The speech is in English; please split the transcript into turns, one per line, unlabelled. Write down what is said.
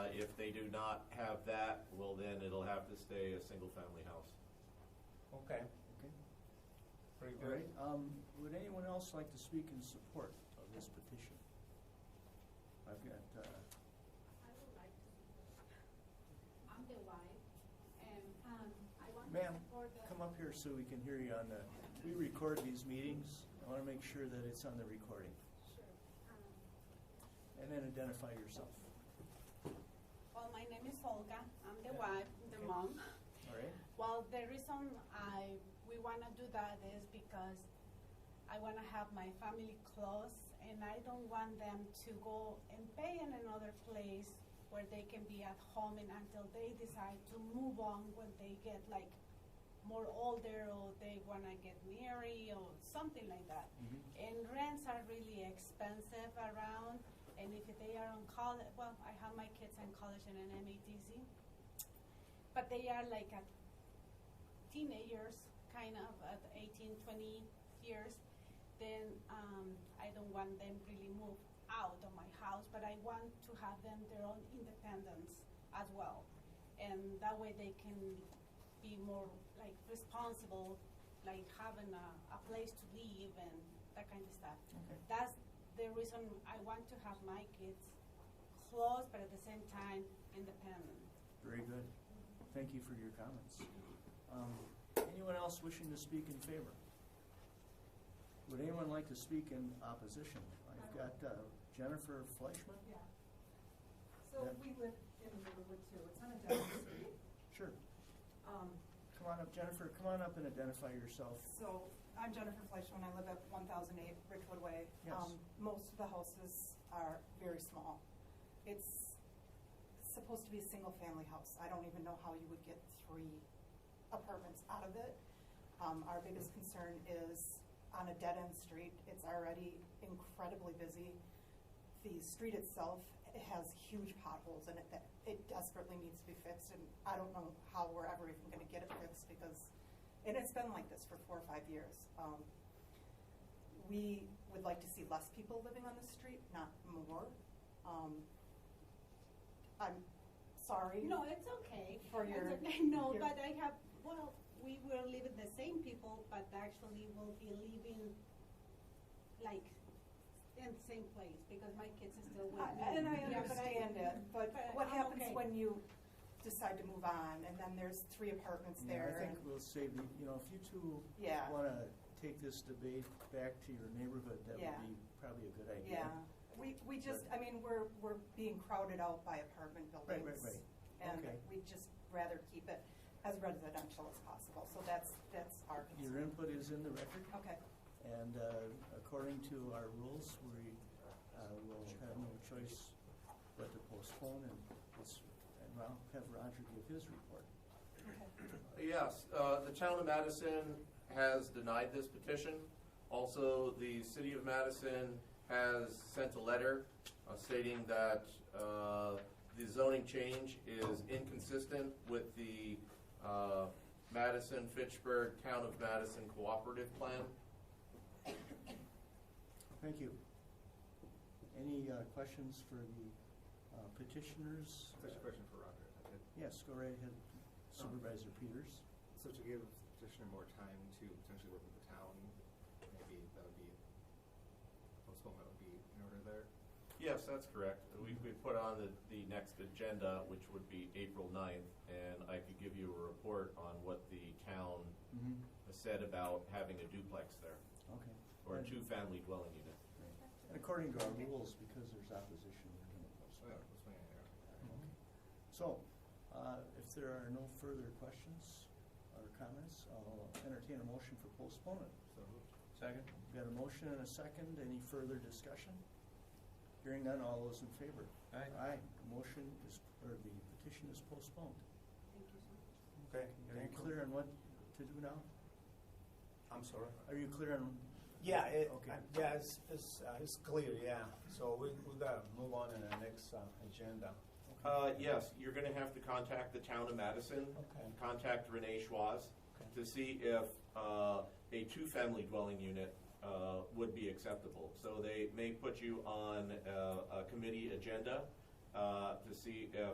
Uh, If they do not have that, well, then it'll have to stay a single-family house.
Okay,
Okay.
pretty
All right,
good.
um, would anyone else like to speak in support of this petition? I've got, uh,
I would like to. I'm the wife, and um, I want to
ma'am,
support the.
come up here so we can hear you on the, we record these meetings. I want to make sure that it's on the recording.
Sure. Um,
And then identify yourself,
Well, my name is Olga. I'm the wife, the
Okay.
mom.
all right?
Well, the reason I, we want to do that is because I want to have my family close, and I don't want them to go and pay in another place where they can be at home and until they decide to move on when they get like more older or they want to get married or something like that. And rents are really expensive around, and if they are on college, well, I have my kids in college and an MATC, but they are like at teenagers, kind of at 18, 20 years, then um, I don't want them really move out of my house, but I want to have them their own independence as well. And that way they can be more like responsible, like having a, a place to live and that kind of stuff. That's the reason I want to have my kids close, but at the same time independent.
Very good. Thank you for your comments. Um, Anyone else wishing to speak in favor? Would anyone like to speak in opposition? I've got uh, Jennifer Fleischman?
Yeah. So
Yeah.
we live in Riverwood too. It's on a dead street.
Sure.
Um,
Come on up, Jennifer, come on up and identify yourself.
So I'm Jennifer Fleischman. I live at 1008 Ridgewood Way.
Yes.
Um, Most of the houses are very small. It's supposed to be a single-family house. I don't even know how you would get three apartments out of it. Um, Our biggest concern is on a dead-end street. It's already incredibly busy. The street itself has huge potholes in it that it desperately needs to be fixed, and I don't know how we're ever even going to get it fixed because, and it's been like this for four or five years. Um, We would like to see less people living on the street, not more. Um, I'm sorry.
No, it's okay.
For your-
It's okay. No,
your-
but I have, well, we were living the same people, but actually we'll be living like in the same place because my kids are still with me.
I- And I
Yeah, but
understand it, but
but
what
I'm
happens
okay.
when you decide to move on, and then there's three apartments
Yeah,
there?
I think
and-
we'll save, the- you know, if you two
Yeah.
want to take this debate back to your neighborhood, that
Yeah.
would be probably a good idea.
Yeah, we, we just, I mean, we're, we're being crowded out by apartment
right,
buildings.
right. Okay.
And we'd just rather keep it as residential as possible, so that's, that's our
Your
concern.
input is in the record.
Okay,
And uh, according to our rules, we uh, will have no choice but to postpone and let's, and I'll have Roger give his report.
Yes, uh, the town of Madison has denied this petition. Also, the city of Madison has sent a letter uh, stating that uh, the zoning change is inconsistent with the uh, Madison-Fitchburg Town of Madison Cooperative Plan.
Thank you. Any uh, questions for the uh, petitioners?
Just a question for Roger. Okay.
Yes, go right ahead Supervisor Peters.
So to give petitioner more time to potentially work with the town, maybe that would be, postponement would be in order there?
Yes, that's correct. We, we put on the, the next agenda, which would be April 9th, and I could give you a report on what the town
Mm-hmm.
said about having a duplex there,
Okay.
or a two-family dwelling unit.
Great. And According to our rules, because there's opposition, we're going to
So, Oh, yeah, Mm-hmm.
postpone.
postpone it, yeah.
So, uh, if there are no further questions or comments, I'll entertain a motion for postponement.
So moved.
Second. Got a motion and a second. Any further discussion? Hearing none, all those in favor? Aye. Aye. The Motion is, or the petition is postponed.
Thank you so much.
Okay,
Are you clear on what to do now?
I'm sorry.
Are you clear on?
Yeah, it,
Okay.
I- yeah, it's, it's, uh, it's clear, yeah. So we, we gotta move on to the next uh, agenda.
Uh, yes, you're gonna have to contact the town of Madison.
Okay.
Contact Renee Schwaz
Okay.
to see if, uh, a two-family dwelling unit, uh, would be acceptable. So they may put you on, uh, a committee agenda, uh, to see if